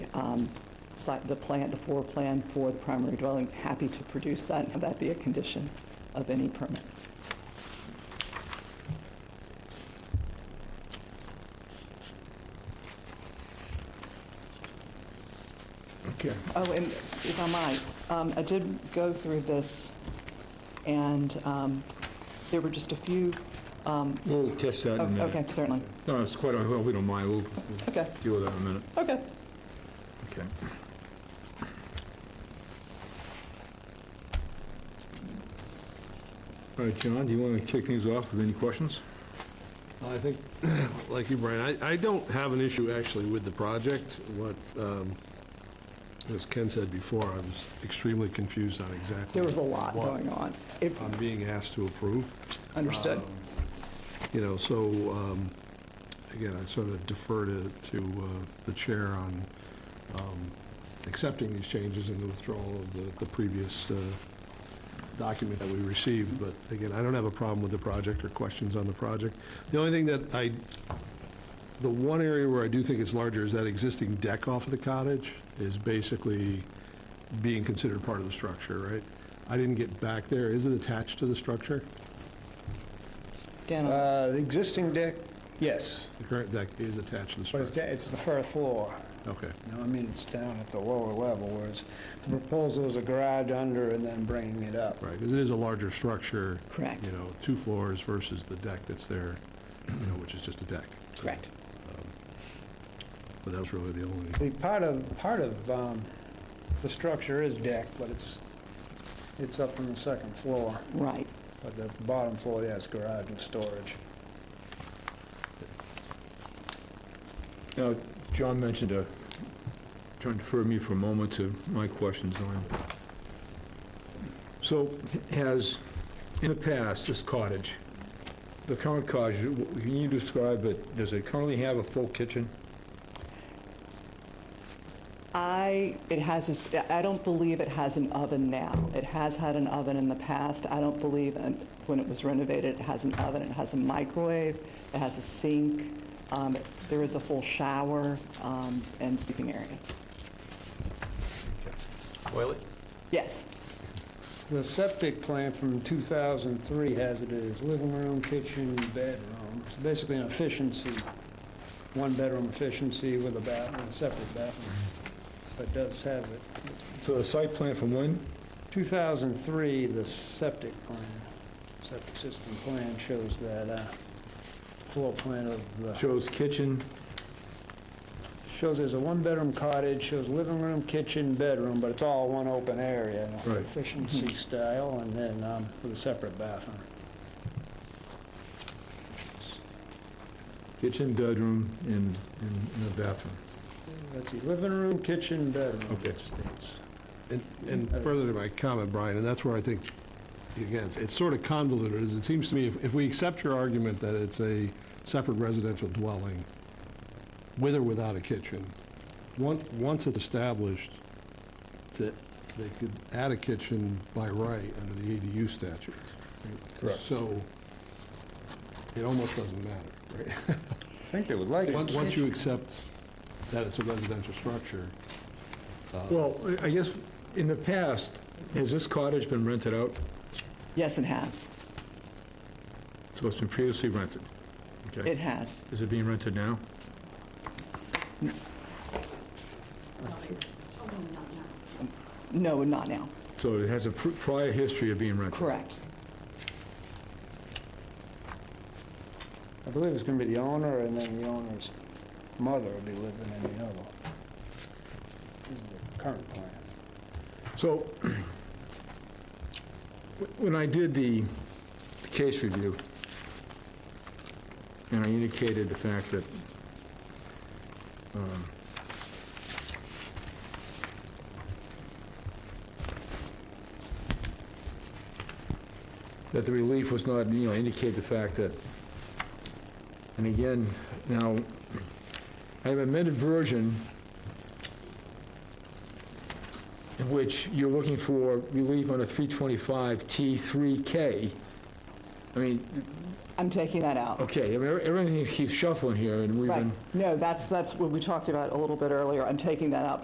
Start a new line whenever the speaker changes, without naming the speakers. um, site- the plan, the floor plan for the primary dwelling, happy to produce that and have that be a condition of any permit.
Okay.
Oh, and if I might, um, I did go through this, and um, there were just a few, um,
We'll catch that in a
oh,
minute.
okay, certainly,
No, it's quite, all right. well, we don't mind, we'll we'll
okay,
deal with that in a minute.
okay.
Okay. All right, John, do you want to kick things off with any questions?
I think, like you, Brian, I, I don't have an issue actually with the project. What, um, as Ken said before, I was extremely confused on exactly.
There was a lot
what
going on. It-
I'm being asked to approve.
Understood.
Um, Uh, You know, so, um, again, I sort of defer to, to uh, the chair on um, accepting these changes and the withdrawal of the, the previous uh, document that we received. But again, I don't have a problem with the project or questions on the project. The only thing that I, the one area where I do think it's larger is that existing deck off of the cottage is basically being considered part of the structure, right? I didn't get back there. Is it attached to the structure?
Dan, I'm-
Uh, The existing deck, yes,
The current deck is attached to the
but it's
structure?
da- it's the first floor.
Okay,
You know, I mean, it's down at the lower level, whereas the proposal is a garage under and then bringing it up.
right, because it is a larger structure,
correct,
you know, two floors versus the deck that's there, you know, which is just a deck. So,
correct.
But that was really the only,
The part of, part of um, the structure is deck, but it's, it's up on the second floor,
Right.
but the bottom floor, yes, garage and storage.
Now, John mentioned a, trying to defer me for a moment to my questions on. So has, in the past, this cottage, the current cottage, can you describe it, does it currently have a full kitchen?
I, it has, a s- I don't believe it has an oven now. It has had an oven in the past. I don't believe, um, when it was renovated, it has an oven, it has a microwave, it has a sink, um, there is a full shower um, and sleeping area.
Oily?
Yes,
The septic plan from 2003 has it as living room, kitchen, bedroom. It's basically an efficiency, one-bedroom efficiency with a bathroom, a separate bathroom, but does have it.
So the site plan from when?
2003, the septic plan, septic system plan shows that uh, floor plan of the,
Shows kitchen,
shows there's a one-bedroom cottage, shows living room, kitchen, bedroom, but it's all one open area,
Right.
efficiency style, and then um, with a separate bathroom.
kitchen, bedroom, and, and and a bathroom.
That's the living room, kitchen, bedroom.
Okay.
States.
and- and further to my comment, Brian, and that's where I think, again, it's- it's sort of convoluted, is it seems to me, if, if we accept your argument that it's a separate residential dwelling, with or without a kitchen, once, once it's established, that they could add a kitchen by right under the ADU statute.
Correct.
So, it almost doesn't matter, right?
I think they would like it.
Once once you accept that it's a residential structure. uh,
Well, I I guess, in the past, has this cottage been rented out?
yes, it has,
So it's been previously rented? Okay.
it has.
Is it being rented now?
No, not now,
So it has a pr- prior history of being rented?
correct.
I believe it's going to be the owner, and then the owner's mother will be living in the other. This is the current plan.
So, when I did the case review, and I indicated the fact that um, that the relief was not, you know, indicate the fact that, and again, now, I have amended version in which you're looking for relief under 325T3K. I mean,
I'm taking that out.
okay, I mean, everything keeps shuffling here, and we've
Right,
been...
no, that's, that's what we talked about a little bit earlier, I'm taking that out